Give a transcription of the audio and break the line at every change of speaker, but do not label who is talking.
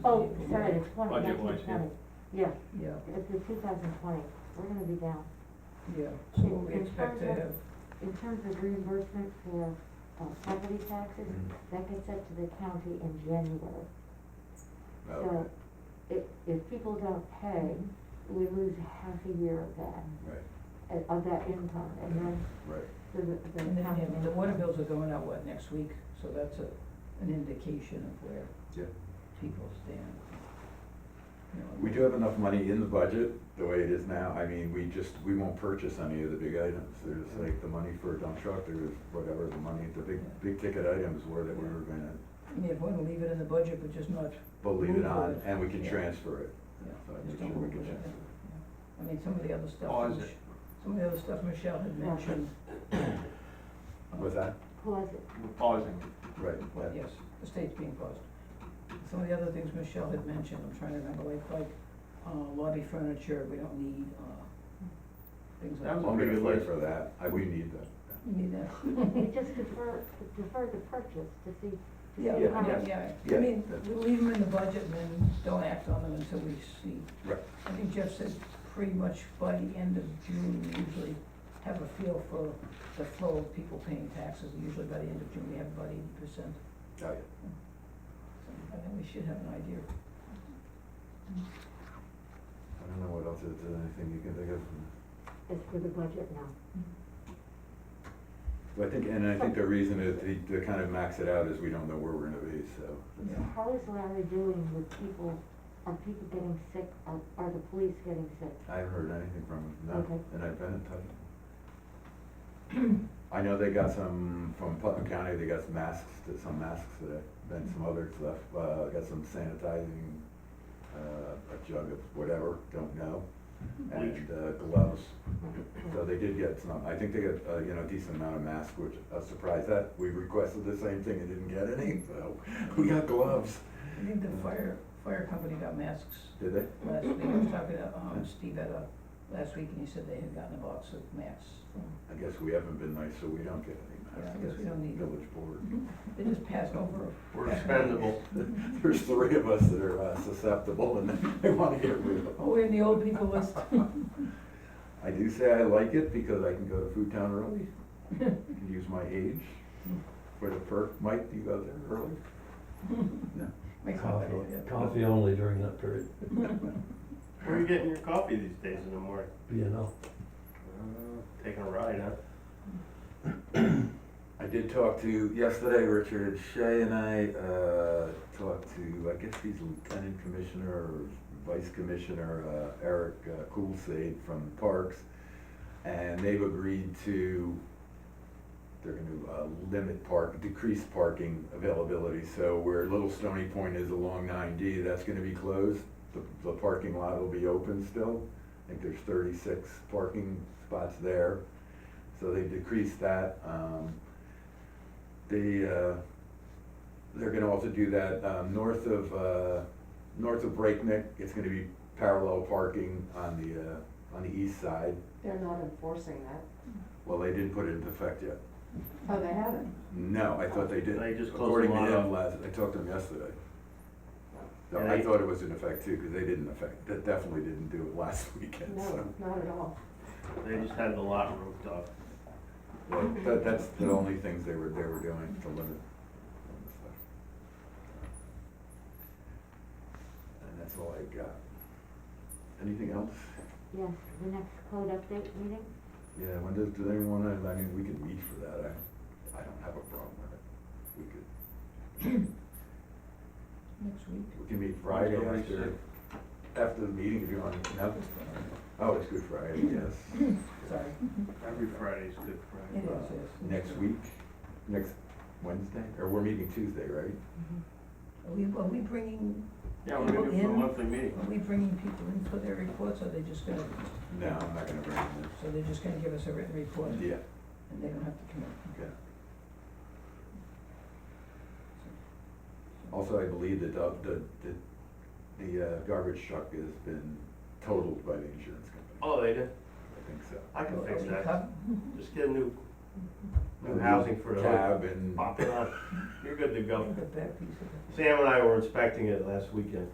Oh, sorry, the twenty,
Budget
nineteen
wise, yeah.
twenty, yeah,
Yeah,
it's the two thousand twenty, we're gonna be down.
yeah,
In-
so we
in
expect to
terms
have,
of- In terms of reimbursement for, uh, property taxes,
Mm-hmm.
that gets up to the county in January. So, if, if people don't pay, we lose half a year of that,
Right,
uh, of that income, and then
right.
the, the.
and then,
county-
and the water bills are going out, what, next week? So that's a, an indication of where
Yeah.
people stand. You know,
We do have enough money in the budget, the way it is now, I mean, we just, we won't purchase any of the big items. There's like the money for a dump truck, there's whatever, the money, the big, big ticket items were that we were gonna
I mean, if we want to leave it in the budget, but just not,
believe it on, and we can
Yeah.
transfer it.
Yeah.
So I
just
make
don't
sure we
move
can
it.
transfer
Yeah. I mean, some of the other stuff.
Oh, is
Mich-
it?
Some of the other stuff Michelle had
Yeah.
mentioned.
it. What's that?
Plus, it-
We're pausing.
Right,
Well,
yeah.
yes, the state's being paused. Some of the other things Michelle had mentioned, I'm trying to remember, like, like uh, lobby furniture, we don't need, uh, things like.
That was
I'll make a
Good list.
list for that, I, we need that.
You need that.
we just defer, defer the purchase to see, to see
Yeah,
how.
yeah,
much-
yeah, I
Yeah.
mean, we leave them in the budget and then don't act on them until we see.
Right.
I think Jeff said pretty much by the end of June, we usually have a feel for the flow of people paying taxes, usually by the end of June, we have about eighty percent.
Got it.
I think we should have an idea.
I don't know what else, is there anything you can think of?
It's for the budget now.
But I think, and I think the reason is to, to kind of max it out is we don't know where we're gonna be, so.
Yeah.
So how is Larry doing with people, are people getting sick, are, are the police getting sick?
I haven't heard anything from them,
Okay.
no, and I've been in touch. I know they got some, from Putnam County, they got some masks, did some masks today, then some other stuff, uh, got some sanitizing, uh, a jug of whatever, don't know, and, uh, gloves. So they did get some, I think they got, uh, you know, a decent amount of masks, which, I was surprised that, we requested the same thing and didn't get any, so, we got gloves.
I think the fire, fire company got masks
Did they?
last week, I was talking to, um, Steve at a, last week, and he said they had gotten a box of masks from
I guess we haven't been nice, so we don't get any masks.
Yeah, I guess we don't need them.
Village board.
They just passed over.
We're expendable.
There's three of us that are uh, susceptible and they want to get rid of
Oh,
them.
we're in the old people list.
I do say I like it because I can go to Food Town early, can use my age for the perk. Mike, do you go there early? No.
My
Coffee,
coffee, yeah.
coffee only during that period,
Where are you getting your coffee these days in the morning?
B and L.
Taking a ride, huh?
I did talk to, yesterday, Richard Shea and I uh, talked to, I guess he's Lieutenant Commissioner or Vice Commissioner uh, Eric uh, Coulsade from Parks. And they've agreed to, they're gonna uh, limit park, decrease parking availability. So where Little Stony Point is along nine D, that's gonna be closed. The, the parking lot will be open still. I think there's thirty-six parking spots there. So they decreased that. Um, They, uh, they're gonna also do that, um, north of, uh, north of Breakneck, it's gonna be parallel parking on the, uh, on the east side.
They're not enforcing that.
Well, they didn't put it into effect yet.
Oh, they haven't?
No, I thought they did.
They just closed
According
the
to
lot
him
up.
last, I talked to him yesterday. So
Yeah,
I
they-
thought it was in effect too, cause they didn't affect, that definitely didn't do it last weekend, so.
No, not at all.
They just had the lot roofed up.
Well, that, that's the only things they were, they were doing to limit. And that's all I got. Anything else?
Yes, the next code update meeting,
Yeah, when does, do they wanna, I mean, we could meet for that, I, I don't have a problem with it. We could,
Next week.
we can meet Friday
October
after, after the meeting if you want, no? Oh, it's Good Friday, yes.
Sorry.
Every Friday's Good
It is,
Friday.
yes.
Next week, next Wednesday, or we're meeting Tuesday, right?
Are we, are we bringing,
Yeah, we're gonna do it for a
In-
monthly meeting.
are we bringing people in for their reports, or are they just gonna,
No, I'm not gonna bring it
so they're just gonna give us a written report?
in. Yeah,
And they don't have to come in?
okay. Also, I believe that the, the, the uh, garbage truck has been totaled by the insurance company.
Oh, they did?
I think so.
I can
Are
fix
we
that.
cov-
Just get a new, new housing for the
Cab and.
Pop it on. You're good to
I
go.
think the back piece of it.
Sam and I were inspecting it last weekend.